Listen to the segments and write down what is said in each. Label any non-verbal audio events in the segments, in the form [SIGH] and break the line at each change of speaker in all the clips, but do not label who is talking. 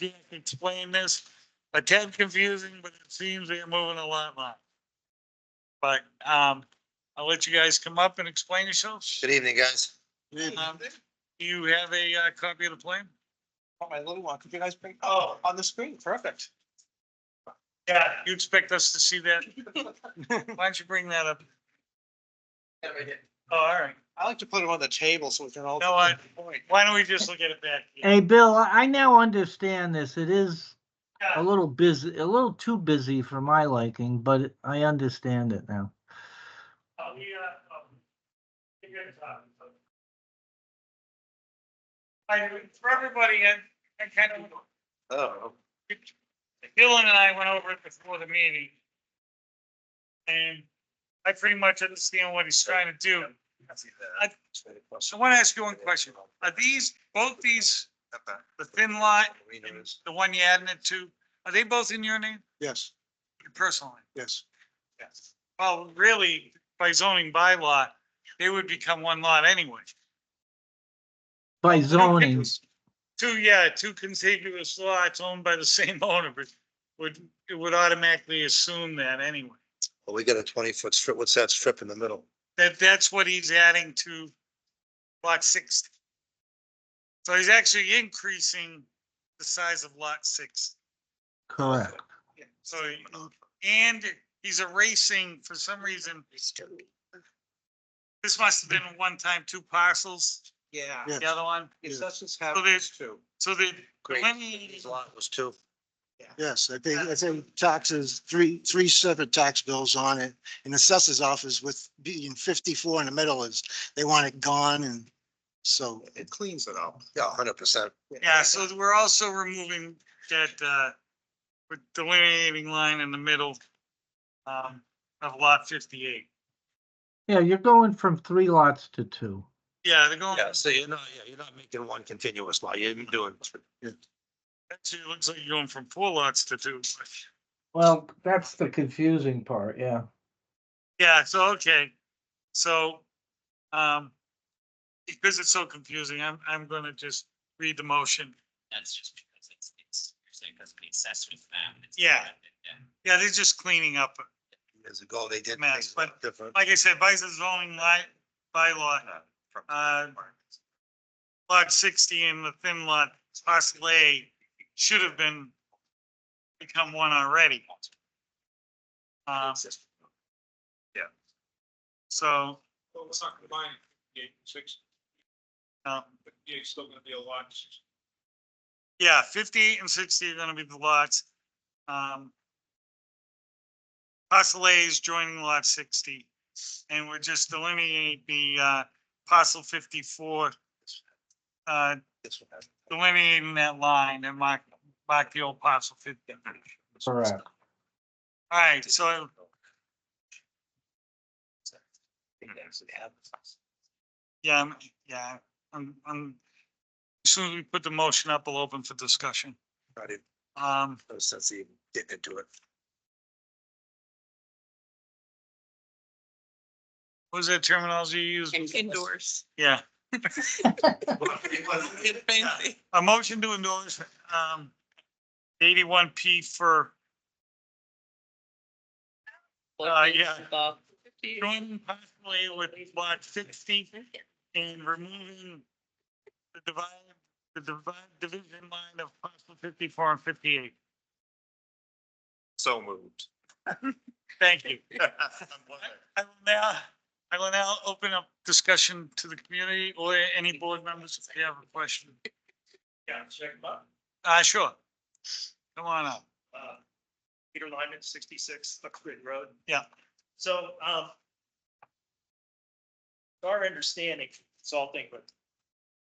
Dick explained this, a tad confusing, but it seems we are moving a lot, lot. But, um, I'll let you guys come up and explain yourselves.
Good evening, guys.
uh,
Um, Do you have a, uh, copy of the plan?
Oh, my little one, could you guys bring, oh, on the screen, perfect.
Yeah. You expect us to see that? Why don't you bring that up? Oh, all right.
I like to put them on the table so we can all.
No, I- Why don't we just look at it back? here?
Hey, Bill, I I now understand this. It is a little busy, a little too busy for my liking, but I understand it now.
Oh, uh, I, for everybody, I, I kind of
Oh,
Dylan and I went over it before the meeting. And I pretty much understand what he's trying to do. I- So I want to ask you one question. Are these, both these, the thin line, and the one you added it to, are they both in your name,
Yes,
your personal name?
yes.
Yes. Well, really, by zoning bylaw, they would become one lot anyway.
By zoning,
Two, yeah, two contiguous lots owned by the same [LAUGHS] owner, but would, it would automatically assume that anyway.
well, we got a twenty foot strip. What's that strip in the middle?
That, that's what he's adding to lot sixty. So he's actually increasing the size of lot six.
correct.
So, and he's erasing, for some reason, this must have been one time two parcels,
Yeah.
Yeah.
the other one.
It's
Yeah.
such as happening
there's-
too.
So the
Great.
delineating
His lot was two.
Yes, I think, I think taxes, three, three separate tax bills on it. And the assessors office with being fifty-four in the middle is, they want it gone and so.
It cleans it up.
Yeah, hundred percent.
Yeah, so we're also removing that, uh, with delineating line in the middle, um, of lot fifty-eight.
Yeah, you're going from three lots to two.
Yeah, they're going,
Yeah, so you're not, yeah, you're not making one continuous lot. You're doing.
actually, it looks like you're going from four lots to two.
Well, that's the confusing part, yeah.
Yeah, so, okay, so, um, because it's so confusing, I'm, I'm gonna just read the motion.
That's just because it's, it's, you're saying because of the accessory map. and it's-
Yeah. Yeah, they're just cleaning up.
Years ago, they did
Max,
things
but-
different.
Like I said, by the zoning li- bylaw, uh, lot sixty and the thin lot, parcel A, should have been become one already. Um, so,
Well, it's not combining fifty-eight and sixty,
um,
fifty-eight's still gonna be a lot.
yeah, fifty and sixty are gonna be the lots. Um, parcel A is joining lot sixty, and we're just delineating the, uh, parcel fifty-four, uh,
This one has-
delineating that line and mark, mark the old parcel fifty.
Correct.
All right, so Yeah, I'm, yeah, I'm, I'm, as soon as we put the motion up, we'll open for discussion.
I didn't-
Um,
No sense even getting into it.
[LAUGHS]
what was that terminology you used?
Indoors.
Yeah,
Fancy.
a motion to endorse, um, eighty-one P for Uh, yeah. joining possibly with lot sixty and removing the divide, the divide, division line of parcel fifty-four and fifty-eight.
So [LAUGHS] moved.
Thank you. I will now, I will now open up discussion to the community or any board members if they have a question.
Yeah, check them out.
Uh, sure. Come on up.
Uh, Peter Lyman, sixty-six Duck Creek Road.
Yeah.
So, um, it's our understanding, consulting with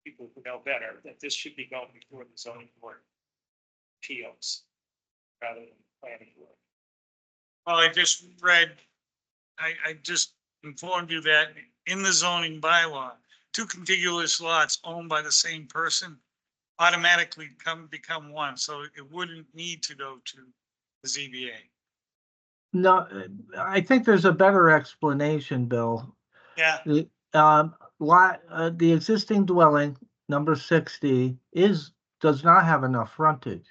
people who know better, that this should be going before the zoning board appeals rather than planning board.
Well, I just read, I, I just informed you that in the zoning bylaw, two contiguous lots owned by the same person automatically come, become one, so it wouldn't need to go to the ZBA.
No, I think there's a better explanation, Bill.
Yeah.
The, um, lot, uh, the existing dwelling, number sixty, is, does not have enough frontage.